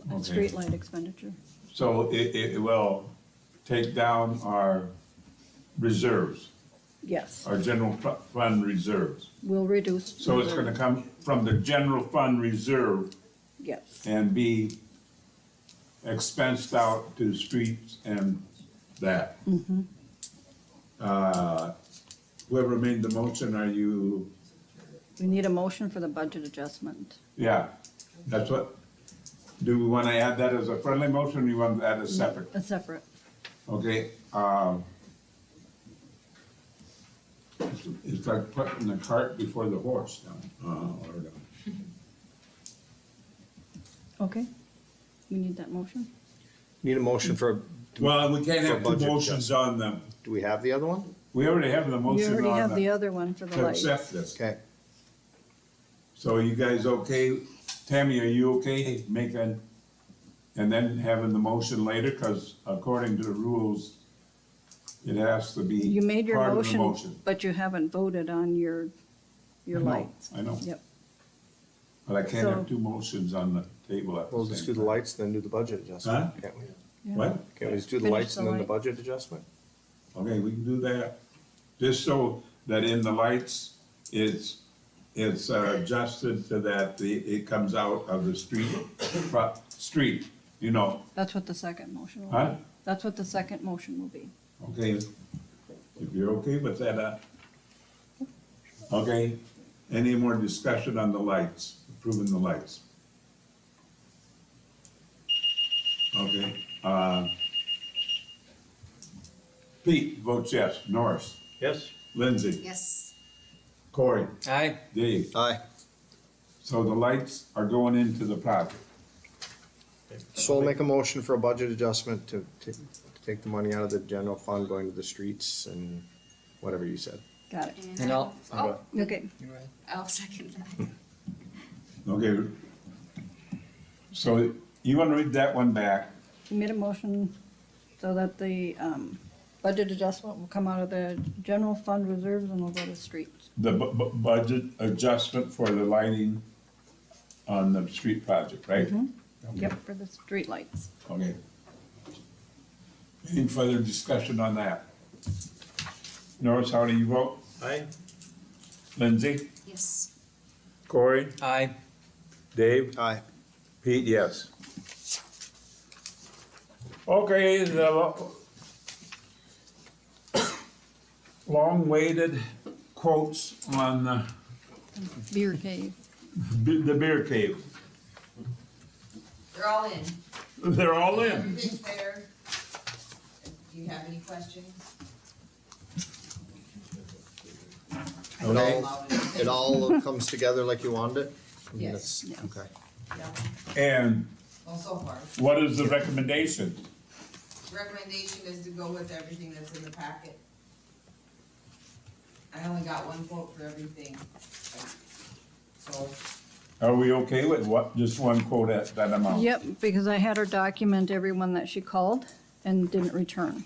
Okay. streetlight expenditure. So it, it it will take down our reserves, Yes, our general fu- fund reserves. we'll reduce. So it's gonna come from the general fund reserve Yes, and be expensed out to streets and that. Uh, Whoever made the motion, are you, we need a motion for the budget adjustment. yeah, that's what, do we wanna add that as a friendly motion, or you want that as separate? A separate. Okay, um. It's, it's like putting the cart before the horse now, uh, Uh-huh. or the- Okay. We need that motion? Need a motion for, Well, we can't For have two budget motions on them. do we have the other one? We already have the You motion already have on the the, other one for the to lights. accept this. Okay, So you guys okay? Tammy, are you okay making, and then having the motion later? Cause according to the rules, it has to be You made your part of the motion, but you haven't voted on your, your I know, lights. I know. Yep, But I can't So- have two motions on the table at the same time. we'll just do the lights, then do the budget adjustment. Can't we? yeah. What? Can't we just do the Finish lights the and then the light. budget adjustment? Okay, we can do that, just so that in the lights, it's, it's uh, adjusted so that the, it comes out of the street, fro- street, you know, That's what the second motion will Huh? be. That's what the second motion will be. okay? If you're okay with that, uh, okay, any more discussion on the lights, approving the lights? Okay, uh, Pete votes yes, Norris, Yes. Lindsay, Yes. Corey. Aye. Dave, Aye. so the lights are going into the project. So we'll make a motion for a budget adjustment to, to to take the money out of the general fund, going to the streets and whatever you said. Got it. And I'll- Oh, Okay, I'll second that. Okay. So you wanna read that one back? you made a motion so that the, um, budget adjustment will come out of the general fund reserves and will go to streets. The bu- bu- budget adjustment for the lighting on the street project, right? Yep, for the streetlights. Okay. Any further discussion on that? Norris, how do you vote? Aye. Lindsay? Yes. Corey? Aye. Dave? Aye. Pete, yes. Okay, the lo- long-waited quotes on the Beer cave. be- the beer cave. They're all in. They're all in. Everything's there. Do you have any questions? I It can all, allow it. it all comes together like you wanted it? I mean, Yes. that's- Okay. Yeah, And Well, so far. what is the recommendation? Recommendation is to go with everything that's in the packet. I only got one quote for everything. So, Are we okay with what, just one quote at that amount? Yep, because I had her document everyone that she called and didn't return.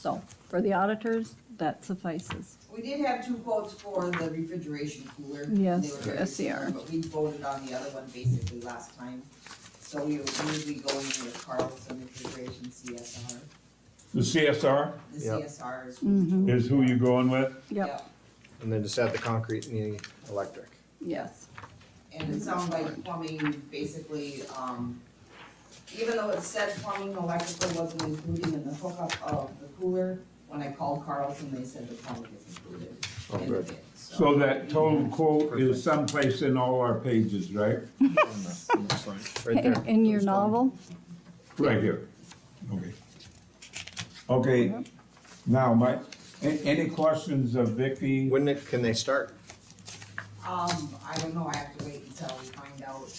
So, for the auditors, that suffices. we did have two quotes for the refrigeration cooler. Yes, They were very SCR. similar, But we voted on the other one basically last time. So we were usually going with Carlson Refrigeration CSR. The CSR The Yep. CSR is. is who you're going with? Mm-hmm. Yep, And then just add the concrete and the electric. yes. And it sounds like plumbing, basically, um, even though it said plumbing, electrical wasn't included in the hookup of the cooler, when I called Carlson, they said the plumbing is included in the good. bid, so. So that total quote is someplace in all our pages, right? Right In there. in your novel, Right here. Okay. Okay, now, my, a- any questions of Vicky? When it- can they start? Um, I don't know, I have to wait until we find out.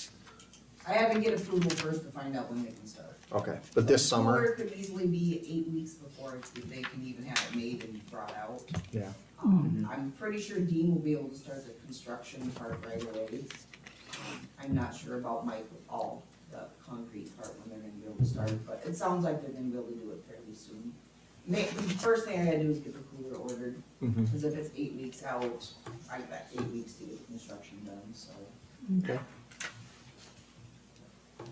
I have to get approval first to find out when they can start. Okay, but this Cooler summer? could easily be eight weeks before it's- they can even have it made and brought out. Yeah. Um, I'm pretty sure Dean will be able to start the construction part right away. I'm not sure about Mike with all the concrete part when they're gonna be able to start, but it sounds like they're gonna be able to do it fairly soon. Ma- the first thing I gotta do is get the cooler ordered, Mhm. cause if it's eight weeks out, I got eight weeks to get the construction done, so. Okay.